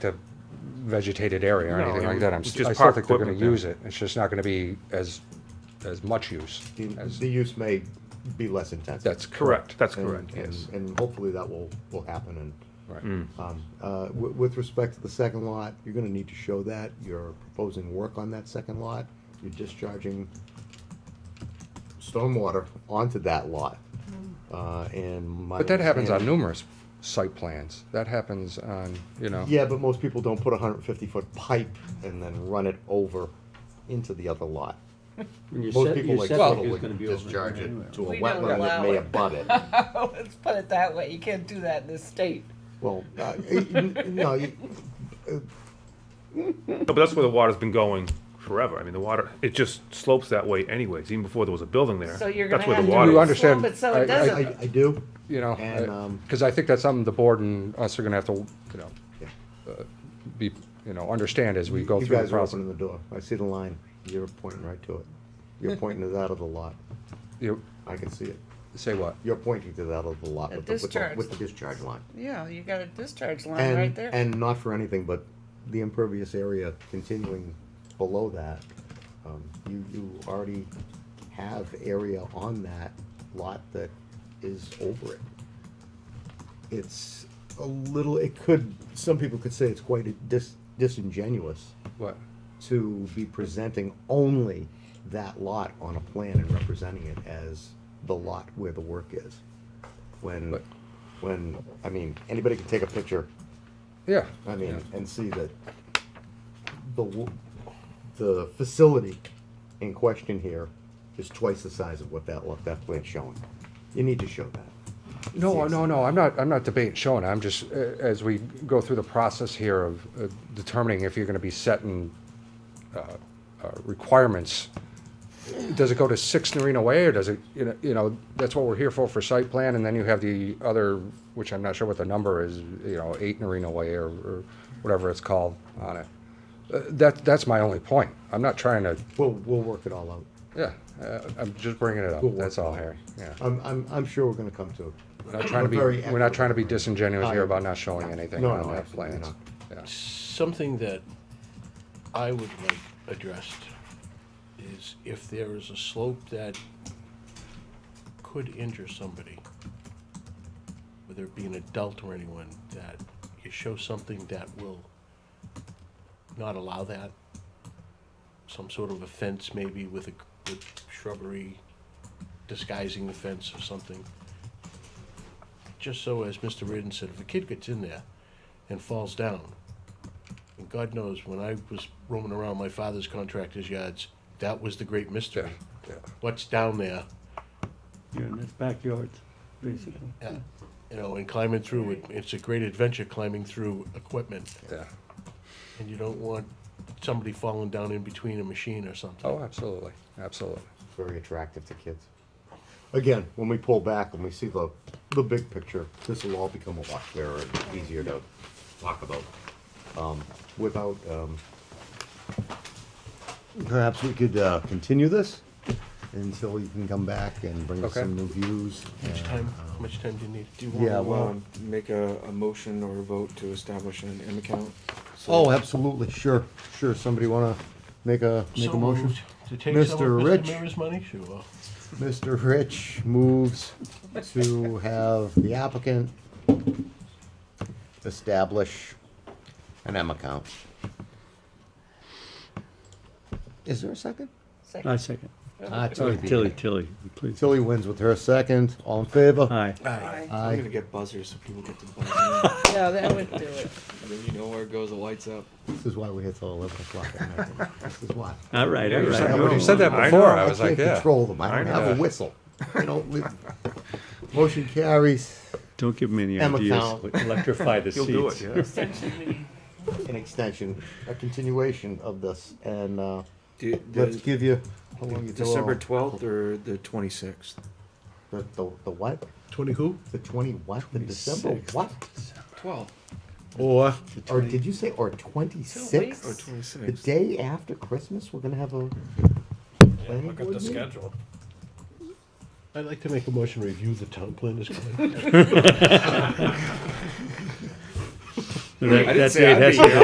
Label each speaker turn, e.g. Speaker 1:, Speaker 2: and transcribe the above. Speaker 1: the vegetated area or
Speaker 2: No,
Speaker 1: anything
Speaker 2: it
Speaker 1: like
Speaker 2: would-
Speaker 1: that. I'm,
Speaker 2: it's
Speaker 1: s-
Speaker 2: just
Speaker 1: I still
Speaker 2: park
Speaker 1: think they're gonna
Speaker 2: equipment there.
Speaker 1: use it. It's just not gonna be as, as much use
Speaker 3: The,
Speaker 1: as,
Speaker 3: the use may be less intense.
Speaker 1: that's correct.
Speaker 2: Correct, that's
Speaker 3: And-
Speaker 2: correct,
Speaker 3: and-
Speaker 2: yes.
Speaker 3: And hopefully that will, will happen and,
Speaker 1: Right.
Speaker 3: um, uh, with, with respect to the second lot, you're gonna need to show that, you're proposing work on that second lot, you're discharging stormwater onto that lot, uh, and my.
Speaker 1: But that happens on
Speaker 3: understanding-
Speaker 1: numerous site plans. That happens on, you know.
Speaker 3: Yeah, but most people don't put a hundred and fifty foot pipe and then run it over into the other lot.
Speaker 4: And your
Speaker 3: Most
Speaker 4: set-
Speaker 3: people
Speaker 4: your
Speaker 3: like
Speaker 4: setback
Speaker 3: Little
Speaker 4: is
Speaker 3: would
Speaker 4: gonna be over
Speaker 3: discharge
Speaker 4: anyway.
Speaker 3: it to a
Speaker 5: We don't
Speaker 3: wetland that
Speaker 5: allow
Speaker 3: may
Speaker 5: it.
Speaker 3: abut it.
Speaker 5: Let's put it that way. You can't do that in this state.
Speaker 3: Well, uh, n- n- no, you,
Speaker 2: No, but that's where the water's been going forever. I mean, the water, it just slopes that way anyways, even before there was a building there.
Speaker 5: So you're
Speaker 2: That's
Speaker 5: gonna
Speaker 2: where the
Speaker 5: have to-
Speaker 2: water.
Speaker 1: You
Speaker 5: Slump
Speaker 1: understand.
Speaker 5: it so it
Speaker 1: I- I-
Speaker 5: doesn't-
Speaker 3: I, I do.
Speaker 1: You
Speaker 3: And,
Speaker 1: know,
Speaker 3: um,
Speaker 1: because I think that's something the board and us are gonna have to, you know, uh,
Speaker 3: Yeah.
Speaker 1: be, you know, understand as we go
Speaker 3: You
Speaker 1: through the
Speaker 3: guys are
Speaker 1: process.
Speaker 3: opening the door. I see the line. You're pointing right to it. You're pointing to that of the lot.
Speaker 1: You,
Speaker 3: I can see it.
Speaker 1: say what?
Speaker 3: You're pointing to that of the lot
Speaker 5: The
Speaker 3: with the, with the,
Speaker 5: discharge.
Speaker 3: with the discharge line.
Speaker 5: Yeah, you got a discharge line
Speaker 3: And,
Speaker 5: right there.
Speaker 3: and not for anything, but the impervious area continuing below that, um, you, you already have area on that lot that is over it. It's a little, it could, some people could say it's quite a dis, disingenuous
Speaker 1: What?
Speaker 3: to be presenting only that lot on a plan and representing it as the lot where the work is. When,
Speaker 1: But-
Speaker 3: when, I mean, anybody can take a picture,
Speaker 1: Yeah.
Speaker 3: I
Speaker 1: yeah.
Speaker 3: mean, and see that the, w- the facility in question here is twice the size of what that, lot- that plan's showing. You need to show that.
Speaker 1: No,
Speaker 3: Yes.
Speaker 1: no, no, I'm not, I'm not debating showing, I'm just, uh, as we go through the process here of uh, determining if you're gonna be setting uh, uh, requirements, does it go to six Narina Way, or does it, you know, you know, that's what we're here for, for site plan, and then you have the other, which I'm not sure what the number is, you know, eight Narina Way, or, or whatever it's called on it. Uh, That, that's my only point, I'm not trying to,
Speaker 3: We'll, we'll work it all out.
Speaker 1: yeah, uh, I'm just bringing it up,
Speaker 3: We'll work
Speaker 1: that's all,
Speaker 3: it out.
Speaker 1: Harry, yeah.
Speaker 3: I'm, I'm, I'm sure we're gonna come to.
Speaker 1: We're not trying to be,
Speaker 3: Very
Speaker 1: we're not trying to be
Speaker 3: equitable.
Speaker 1: disingenuous
Speaker 3: Oh,
Speaker 1: here
Speaker 3: yeah.
Speaker 1: about not showing anything
Speaker 3: No,
Speaker 1: on
Speaker 3: no,
Speaker 1: that
Speaker 3: absolutely
Speaker 1: plans.
Speaker 3: not.
Speaker 1: Yeah.
Speaker 6: Something that I would like addressed is if there is a slope that could injure somebody, whether it be an adult or anyone, that you show something that will not allow that. Some sort of a fence maybe with a, with shrubbery disguising the fence or something. Just so, as Mr. Reardon said, if a kid gets in there and falls down, and God knows, when I was roaming around my father's contractor's yards, that was the great
Speaker 1: Yeah,
Speaker 6: mystery.
Speaker 1: yeah.
Speaker 6: What's down there,
Speaker 4: You're in his backyard, basically.
Speaker 6: uh, you know, and climbing through it, it's a great adventure climbing through equipment.
Speaker 1: Yeah.
Speaker 6: And you don't want somebody falling down in between a machine or something.
Speaker 1: Oh, absolutely, absolutely.
Speaker 3: very attractive to kids. Again, when we pull back and we see the, the big picture, this will all become a lot clearer and easier to talk about. Um, without, um, perhaps we could, uh, continue this until you can come back and bring us
Speaker 1: Okay.
Speaker 3: some new views.
Speaker 6: How much
Speaker 3: and,
Speaker 6: time,
Speaker 3: um,
Speaker 6: how much time do you need? Do you
Speaker 3: Yeah,
Speaker 6: want,
Speaker 3: well,
Speaker 7: Well, make a, a motion or a vote to establish an M account. So-
Speaker 3: oh, absolutely, sure, sure. Somebody wanna make a, make a
Speaker 6: so
Speaker 3: motion?
Speaker 6: moved to take some
Speaker 3: Mr.
Speaker 6: of
Speaker 3: Rich.
Speaker 6: Mr. Mira's money? Sure.
Speaker 3: Mr. Rich moves to have the applicant establish an M account. Is there a second?
Speaker 5: Second.
Speaker 4: I second.
Speaker 3: Ah,
Speaker 4: Sorry,
Speaker 3: beat
Speaker 4: Tilly,
Speaker 3: me.
Speaker 4: Tilly, please.
Speaker 3: Tilly wins with her second. All in favor?
Speaker 4: Aye.
Speaker 5: Aye.
Speaker 7: I'm
Speaker 3: Aye.
Speaker 7: gonna get buzzers so people get to buzz
Speaker 5: Yeah, that would do it.
Speaker 7: in. Then you know where it goes, the lights up.
Speaker 3: This is why we're here till eleven o'clock at night. This is why.
Speaker 4: All right, all
Speaker 2: you
Speaker 4: right.
Speaker 2: said-
Speaker 1: When
Speaker 2: know.
Speaker 1: you said that
Speaker 2: I
Speaker 1: before,
Speaker 2: know.
Speaker 1: I was like,
Speaker 3: can't
Speaker 1: yeah.
Speaker 3: control them. I don't have a
Speaker 1: know.
Speaker 3: whistle. I don't live. Motion carries.
Speaker 4: Don't give me any
Speaker 3: Emma
Speaker 4: ideas.
Speaker 3: Cowell.
Speaker 4: Electrify the
Speaker 2: You'll do it,
Speaker 4: seats.
Speaker 2: yeah.
Speaker 3: An extension, a continuation of this, and, uh,
Speaker 7: Do-
Speaker 3: let's
Speaker 7: does
Speaker 3: give you, how long you till?
Speaker 7: December
Speaker 3: uh,
Speaker 7: twelfth or the twenty-sixth?
Speaker 3: The, the, the what?
Speaker 6: Twenty who?
Speaker 3: The twenty what? The December what?
Speaker 7: Twelve.
Speaker 3: Or, or did you say, or twenty-six?
Speaker 5: Oh,
Speaker 7: Or
Speaker 3: The
Speaker 7: twenty-sixth.
Speaker 3: day after Christmas, we're gonna have a planning board meeting?
Speaker 6: I'd like to make a motion, to review the town plan as.
Speaker 7: I didn't
Speaker 4: That
Speaker 7: say
Speaker 4: date
Speaker 7: I'd
Speaker 4: has
Speaker 7: be
Speaker 4: to
Speaker 7: here.